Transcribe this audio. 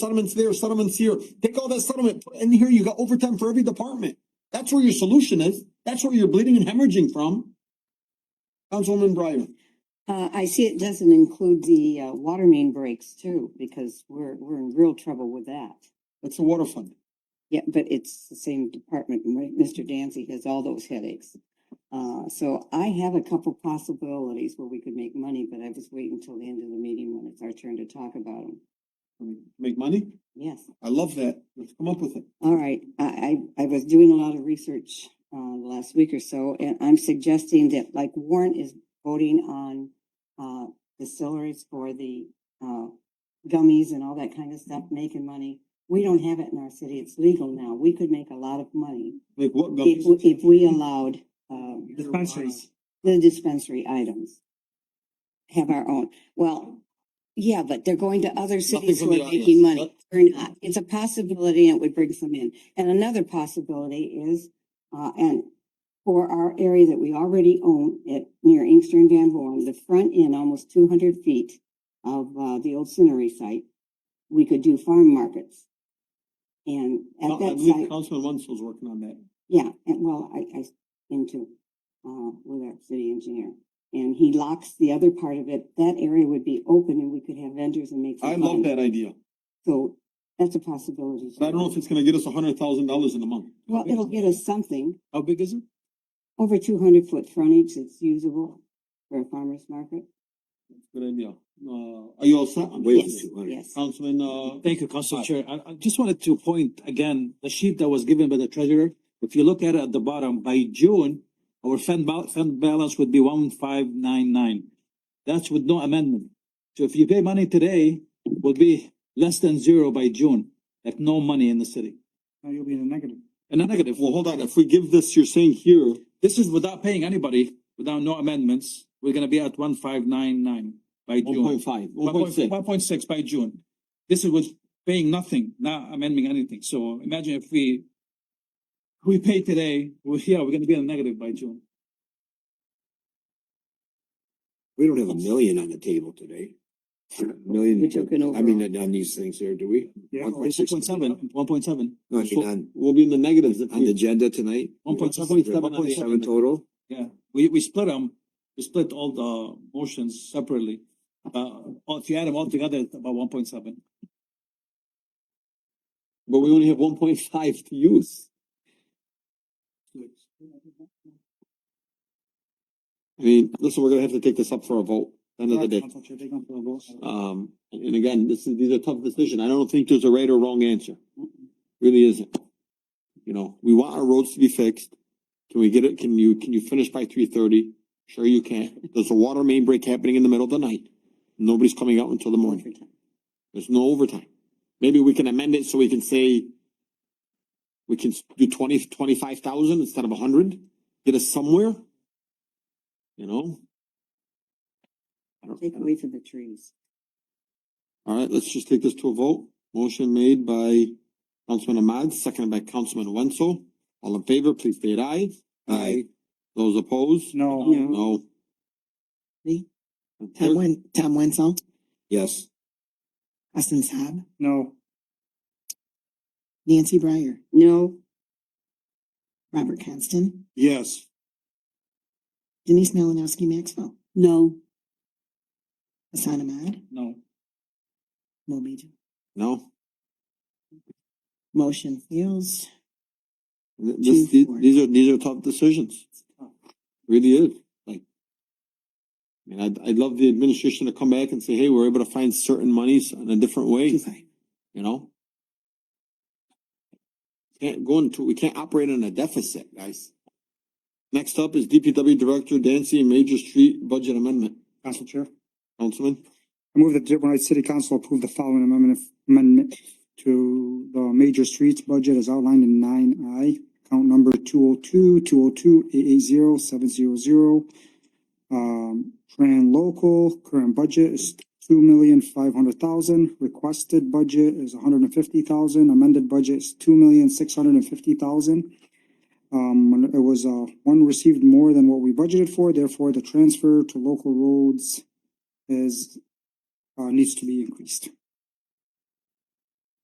settlements there, settlements here. Take all that settlement put it in here. You got overtime for every department. That's where your solution is. That's where you're bleeding and hemorrhaging from. Councilwoman Breyer. Uh, I see it doesn't include the, uh, water main breaks too, because we're, we're in real trouble with that. That's the water fund. Yeah, but it's the same department, and Mi- Mr. Dancy has all those headaches. Uh, so I have a couple possibilities where we could make money, but I was waiting until the end of the meeting when it's our turn to talk about them. Make money? Yes, I love that. Let's come up with it. all right, I, I, I was doing a lot of research, uh, the last week or so, and I'm suggesting that like Warren is voting on, uh, distilleries for the, uh, gummies and all that kind of stuff, making money. We don't have it in our city, it's legal now, we could make a lot of money. Like what? if, we- if we allowed, uh, Dispensaries. The dispensary items. Have our own, well, yeah, but they're going to other cities from who the are audience. making money, What? or not, uh, it's a possibility and it would bring some in. And another possibility is, uh, and for our area that we already own at, near Inkster and Van Horn, the front end, almost two hundred feet of, uh, the old cinery site, we could do farm markets. And No, at I that believe site. Councilman Wenzel's working on that. Yeah, and well, I, I into, uh, with our city engineer. And he locks the other part of it. That area would be open and we could have vendors and make some I fun. love that idea, So that's a possibility. but I don't know if it's gonna get us a hundred thousand dollars in a month. Well, it'll get us something. How big is it? Over two hundred foot frontage that's usable for a farmer's market. Good idea. Uh, are you all set? on Yes, this? yes. Councilman, uh, Thank you, Council Chair. I, I just wanted to point again, the sheet that was given by the treasurer, if you look at it at the bottom, by June, our fund bal- fund balance would be one five nine nine. That's with no amendment. So if you pay money today, will be less than zero by June, like no money in the city. No, you'll be in the negative. And a negative, well, hold on. If we give this, you're saying here, this is without paying anybody, without no amendments, we're gonna be at one five nine nine by one June. point five, one point six. One point six by June. This is with paying nothing, not amending anything. So imagine if we we pay today, we're, yeah, we're gonna be in a negative by June. We don't have a million on the table today. A Million. We took an I mean, on these things here, do we? Yeah. One point One six. point seven. One point seven. No, I mean, on, We'll be in the negatives if on the we, agenda tonight. One point seven. One point seven total. Yeah, we, we split them, we split all the motions separately. Uh, all- if you add them all together, it's about one point seven. but we only have one point five to use. I mean, listen, we're gonna have to take this up for a vote, end of the day. Um, and again, this is, these are tough decisions. I don't think there's a right or wrong answer. Really isn't. You know, we want our roads to be fixed. Can we get it? Can you, can you finish by three thirty? Sure you can. There's a water main break happening in the middle of the night. Nobody's coming out until the morning. There's no overtime. Maybe we can amend it so we can say we can s- do twenty, twenty-five thousand instead of a hundred, get us somewhere. You know? I don't- I Take don't- away from the trees. all right, let's just take this to a vote. Motion made by Councilman Ahmad, seconded by Councilman Wenzel. All in favor, please state aye. Aye. Those opposed? No, No. No. Me? Tom Clerk, Wen, Tom Wenzel, Yes. Hassan Saab, no, Nancy Breyer, No, Robert Constant, Yes. Denise Malinowski Maxwell, no, Hassan Ahmad, No, Mo Meedum. No. Motion fails. Th- This, Two, th- four. these are, these are tough decisions. Really is, like. I mean, I'd, I'd love the administration to come back and say, hey, we're able to find certain monies in a different way, Two five. you know? Can't go into, we can't operate in a deficit, guys. Next up is DPW Director Dancy, Major Street Budget Amendment. Council Chair. Councilman, I move that Dearborn Heights City Council approve the following amendment, amendment to the major streets budget as outlined in nine I. Account number two oh two, two oh two, eight eight zero, seven zero zero. Um, Tran local, current budget is two million five hundred thousand, requested budget is hundred and fifty thousand, amended budget is two million six hundred and fifty thousand. Um, when it was, uh, one received more than what we budgeted for, therefore the transfer to local roads is uh, needs to be increased.